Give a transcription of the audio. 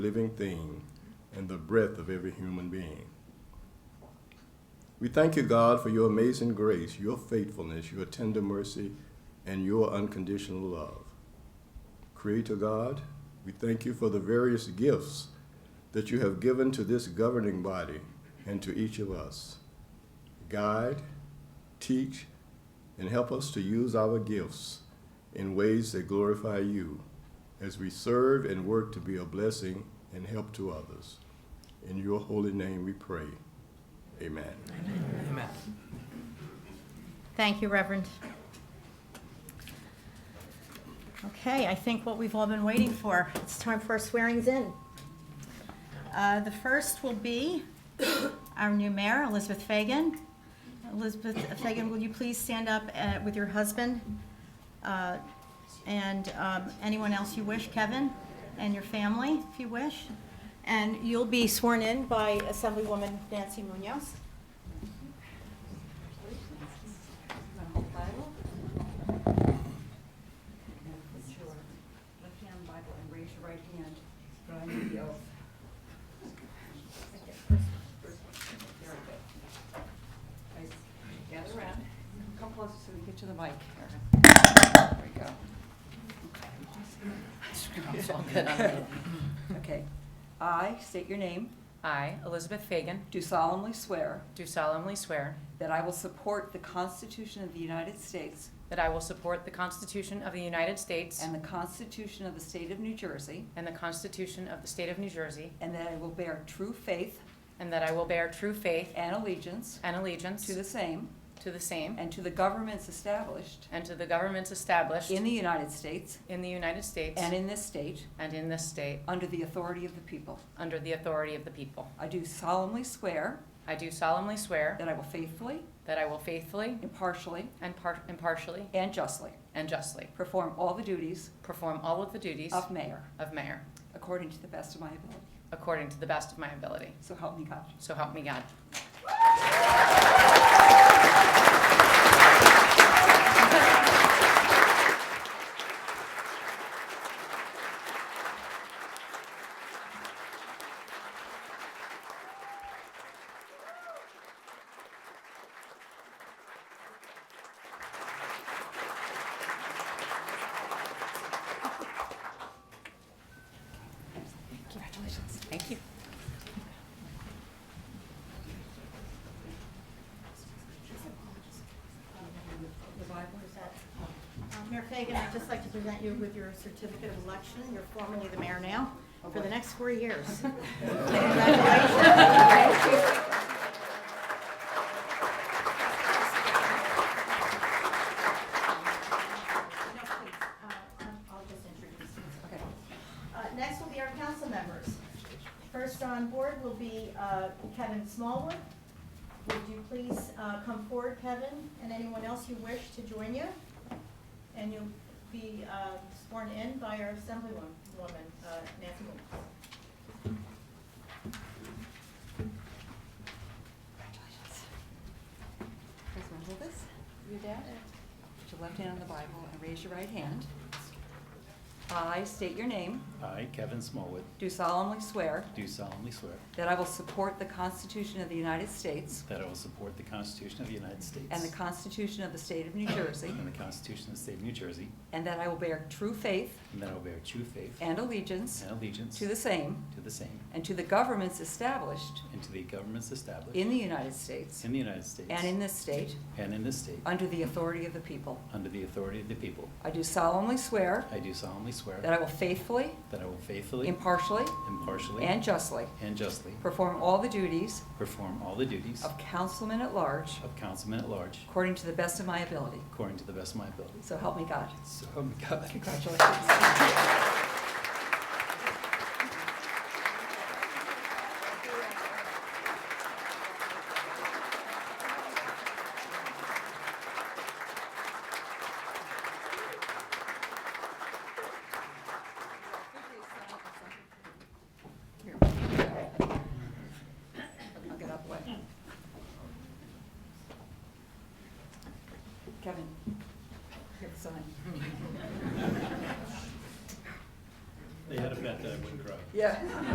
living thing and the breath of every human being. We thank you, God, for your amazing grace, your faithfulness, your tender mercy, and your unconditional love. Creator God, we thank you for the various gifts that you have given to this governing body and to each of us. Guide, teach, and help us to use our gifts in ways that glorify you as we serve and work to be a blessing and help to others. In your holy name we pray. Amen. Amen. Thank you, Reverend. Okay, I think what we've all been waiting for, it's time for our swearings in. Uh, The first will be our new mayor, Elizabeth Fagan. Elizabeth Fagan, will you please stand up uh, with your husband? uh, And um, anyone else you wish, Kevin, and your family, if you wish. And you'll be sworn in by Assemblywoman Nancy Munoz. Bible. Put your left hand on the Bible and raise your right hand. Drawing the oath. Okay, first one, first one. Very good. Guys, Gather around. Come closer so we get to the mic. There we go. Okay. It's all good. Okay. I state your name. I, Elizabeth Fagan, Do solemnly swear do solemnly swear that I will support the Constitution of the United States that I will support the Constitution of the United States and the Constitution of the State of New Jersey, and the Constitution of the State of New Jersey, and that I will bear true faith and that I will bear true faith and allegiance and allegiance to the same to the same and to the governments established and to the governments established in the United States in the United States and in this state and in this state under the authority of the people. under the authority of the people. I do solemnly swear I do solemnly swear that I will faithfully, that I will faithfully impartially, and par- impartially and justly and justly perform all the duties perform all of the duties of mayor of mayor according to the best of my ability. according to the best of my ability. So help me God. So help me God. Congratulations. Thank you. The Bible is that. um, Uh, Mayor Fagan, I'd just like to present you with your certificate of election. You're formally the mayor now for the next four years. Uh, Congratulations. No, please, uh, um, I'll just introduce you. Okay. Uh, Next will be our council members. First on board will be uh, Kevin Smallwood. Would you please uh, come forward, Kevin, and anyone else you wish to join you? And you'll be uh, sworn in by our Assemblywoman, woman, uh, Nancy Williams. Congratulations. Guys, want to hold this? Your dad? Put your left hand on the Bible and raise your right hand. I state your name, I, Kevin Smallwood, do solemnly swear do solemnly swear that I will support the Constitution of the United States that I will support the Constitution of the United States and the Constitution of the State of New Jersey, and the Constitution of the State of New Jersey, and that I will bear true faith and that I will bear true faith and allegiance and allegiance to the same to the same and to the governments established and to the governments established in the United States in the United States and in this state and in this state under the authority of the people. under the authority of the people. I do solemnly swear I do solemnly swear that I will faithfully, that I will faithfully, impartially, impartially, and justly and justly perform all the duties perform all the duties of councilman at large of councilman at large according to the best of my ability. according to the best of my ability. So help me God. So, oh my God. Congratulations. Here. I'll get up way. Kevin, here, sign. They had a bet that I wouldn't cry. Yeah.